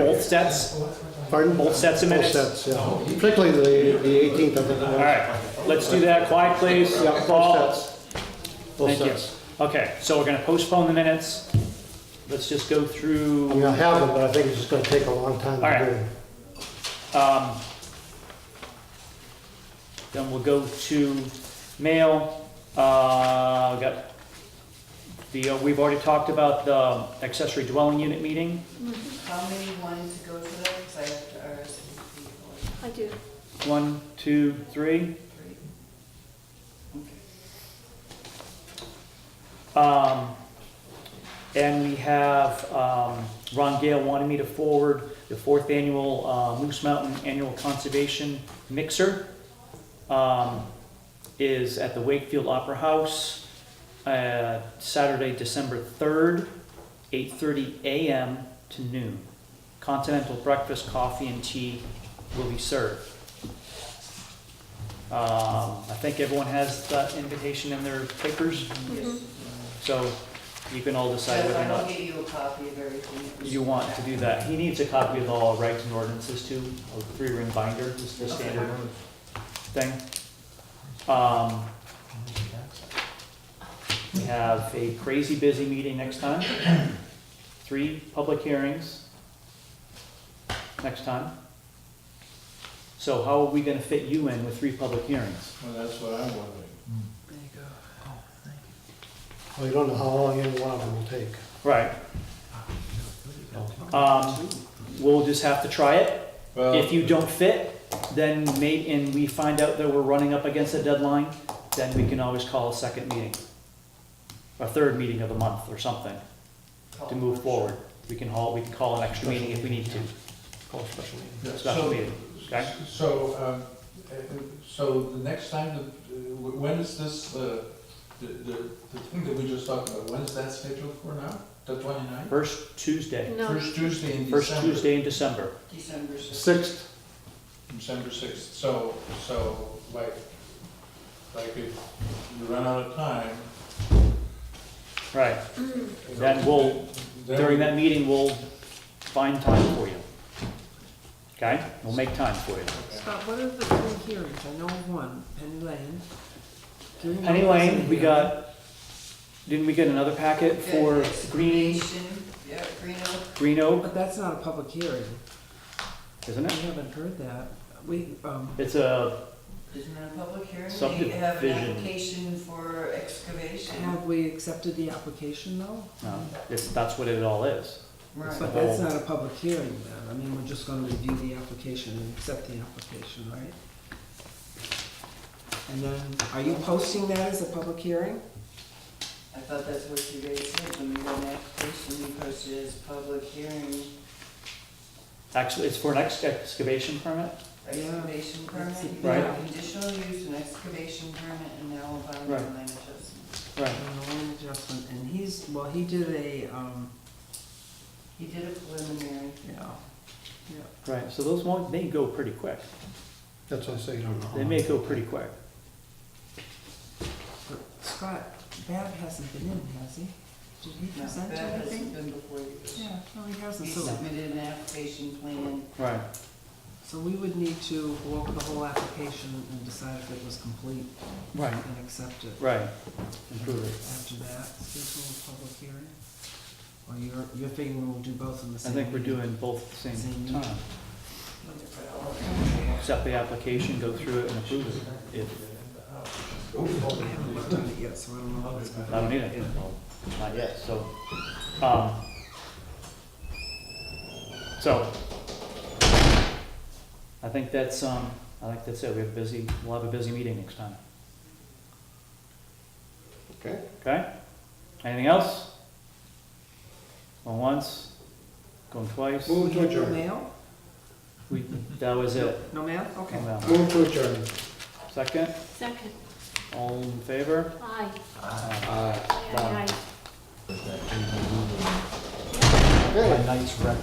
Both sets? Pardon? Both sets of minutes? Both sets, yeah. Particularly the, the 18th of the. All right, let's do that. Quiet, please. Yeah, both Paul? sets. Both Thank you. sets. Okay, so we're gonna postpone the minutes. Let's just go I mean, through, I have them, but I think it's just gonna take a long time All right. to do. it. um, then we'll go to mail. Uh, we got the, uh, we've already talked about the accessory dwelling unit meeting. How many wanted to go to that? Because I have to RSVP for I do. One, two, three. three. Um, and we have, um, Ron Gale wanted me to forward the fourth annual, uh, Moose Mountain Annual Conservation Mixer. Um, is at the Wakefield Opera House, uh, Saturday, December third, eight thirty AM to noon. Continental breakfast, coffee and tea will be served. Um, I think everyone has that invitation in their papers. Yes. So you can all So decide if whether I or don't not get you a copy of everything. it was- you want to do that. He needs a copy of all rights and ordinances too, a three-ring binder, just the standard thing. Um, We have a crazy busy meeting next time, three public hearings next time. So how are we gonna fit you in with three public hearings? Well, that's what I'm wondering. Well, you don't know how long any one of them will take. Right. Um, We'll just have to try it. If Well, you don't fit, then may, and we find out that we're running up against a deadline, then we can always call a second meeting. A third meeting of the month or something to move forward. We can haul, we can call an extra meeting if we need to, Call special meeting. special so, meeting, okay? so, um, uh, so the next time, the- uh, when is this, uh, the, the, the thing that we just talked about, when is that scheduled for now? The twenty-ninth? First Tuesday, No, First Tuesday in first December, Tuesday in December. December sixth. Sixth, December sixth, so, so, like, like if you run out of time. Right, Mm. Then we'll- then during we- that meeting, we'll find time for you. Okay? We'll make time for you. okay. Scott, what are the three hearings? I know of one, Penny Lane. Do you know Penny what's in Lane, we here? got, didn't we get another packet for Good Green, explanation. Yeah, Green Oak. Green Oak, But that's not a public hearing. isn't We it? haven't heard that. We, um, It's a, Isn't that a public hearing? They have an Subdivision. application for excavation. have we accepted the application though? no, Um, it's, that's what it all is. Right. But that's not a public hearing then. I mean, we're just gonna review the application and accept the application, right? And then, are you posting that as a public hearing? I thought that's what you guys said, when we got an application, we posted it as public hearing, Actually, it's for an ex- excavation permit? excavation permit. That's- You can Right. have Conditional use and excavation permit and now Right. environmental land adjustment. Right. Uh, land adjustment, and he's, well, he did a, um, He did a preliminary. yeah, yeah. Right, so those won't, they go pretty quick. that's what I say, you don't know. how They long. may go pretty quick. But Scott, Bab hasn't been in, has he? Did he No, present that to hasn't anything? been before you. Yeah, no, he hasn't, We so, submitted an application plan. Right. so we would need to go over the whole application and decide if it was complete Right. and accept it. Right. Improve it. After that, schedule a public hearing? Or you're, you're figuring we'll do both in the I same? think we're meeting? doing both at the same Same. time. Accept the application, go through it, and approve it. If, I haven't looked at it yet, so I don't know how it's I going. don't need it. Not yet, so, um, so, I think that's, um, I think that's it. We have a busy, we'll have a busy meeting next time. Okay. Okay? Anything else? Going once, going twice? Move to No adjourn. mail? We, that was it. No mail? Okay. Oh, well. Move to adjourn. Second, second, all in favor? aye, Aye. aye, aye, aye. Okay.